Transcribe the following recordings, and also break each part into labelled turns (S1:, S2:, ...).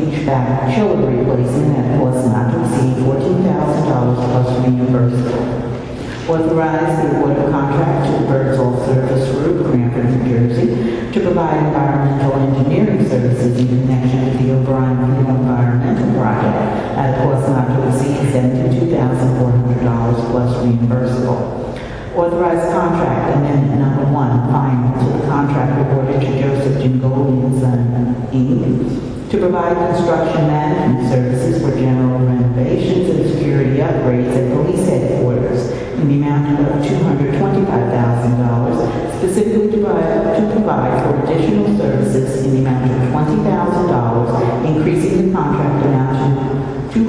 S1: uh, shoulder replacement at a cost not to exceed fourteen thousand dollars plus reimbursement. Authorize the award of contract to Berthold Service Group, Cranford, New Jersey, to provide environmental engineering services in connection with the O'Brien Clean Environmental Project at a cost not to exceed seventy-two thousand four hundred dollars plus reimbursable. Authorize contract amendment number one, final to the contract awarded to Joseph Jingoli and Son, Inc., to provide construction management services for general renovations and security upgrades at police headquarters in the amount of $225,000, specifically to provide- to provide for additional services in the amount of $20,000, increasing the contract amount to $245,000.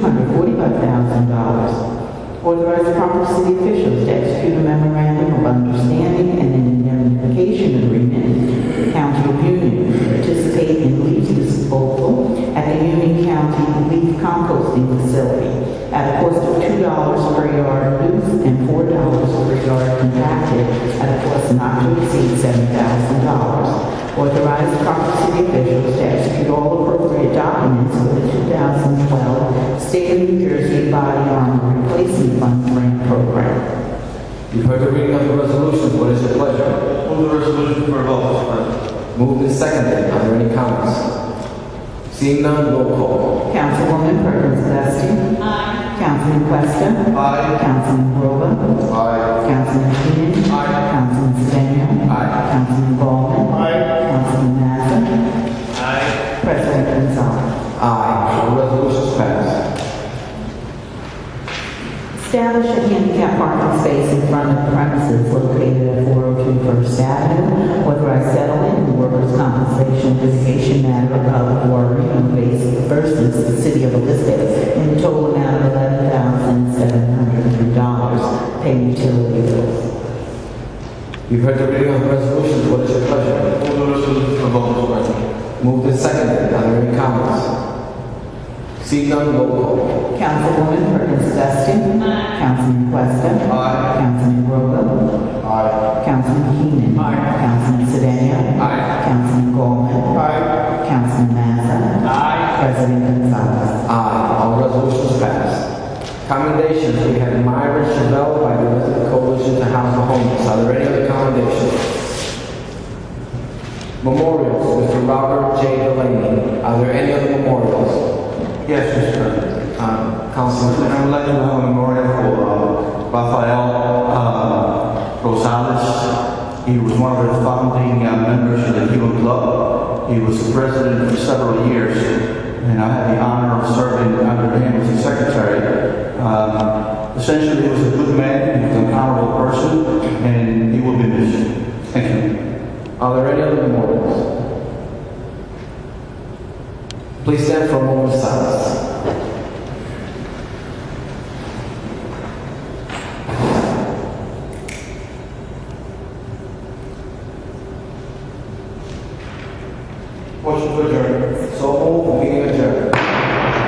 S1: Authorize proper city officials to execute a memorandum of understanding and an indemnification agreement with the County of Union to participate in leaf disposal at the Union County Leaf Composting Facility at a cost of two dollars per yard loose and four dollars per yard compacted at a cost not to exceed seven thousand dollars. Authorize proper city officials to execute all appropriate documents for the 2012 State of New Jersey Body Armor Replacement Fund Grant Program.
S2: You've heard the reading of the resolution, what is your pleasure?
S3: Move the resolution for a vote, Mr. President.
S2: Moved and seconded, are there any comments? Seeing none, roll call.
S1: Councilwoman Perkins Dusting. Aye. Councilman Questa.
S3: Aye.
S1: Councilman Rowland.
S2: Aye.
S1: Councilman Keenan.
S2: Aye.
S1: Councilman Sedan.
S2: Aye.
S1: Councilman Bowman.
S3: Aye.
S1: Councilman Mazza.
S3: Aye.
S1: President Gonzalez.
S2: Aye, the resolution is passed.
S1: Establish a handicap parking space in front of premises located at 402 First Avenue. Authorize settlement in workers' compensation litigation matter of Warren Basin versus the City of Elizabeth in total amount of $11,703. Pay utility bills.
S2: You've heard the reading of the resolution, what is your pleasure?
S3: Move the resolution for a vote, Mr. President.
S2: Moved and seconded, are there any comments? Seeing none, roll call.
S1: Councilwoman Perkins Dusting. Councilman Questa.
S2: Aye.
S1: Councilman Rowland.
S2: Aye.
S1: Councilman Keenan.
S2: Aye.
S1: Councilman Sedan.
S2: Aye.
S1: Councilman Gollman.
S2: Aye.
S1: Councilman Mazza.
S3: Aye.
S1: President Gonzalez.
S2: Aye, Ah, all resolutions passed. Commendations, we have Myra Chevelle by the Resident Coalition to House the Homeless. Are there any other commendations? Memorials, Mr. Robert J. Delaney. Are there any other memorials?
S3: Yes, Mr. President.
S2: Um,
S3: And
S2: Councilman,
S3: I would like to have a memorial for uh, Rafael uh, Rosales. He was one of the founding uh, members of the Cuban Club. He was the president for several years, and I had the honor of serving under him as his secretary. Um, Essentially, he was a good man, he was an honorable person, and he will be missed. Thank you.
S2: are there any other memorials? Please stand for a moment of silence.
S3: Motion to adjourn.
S2: So, moved. meeting adjourned.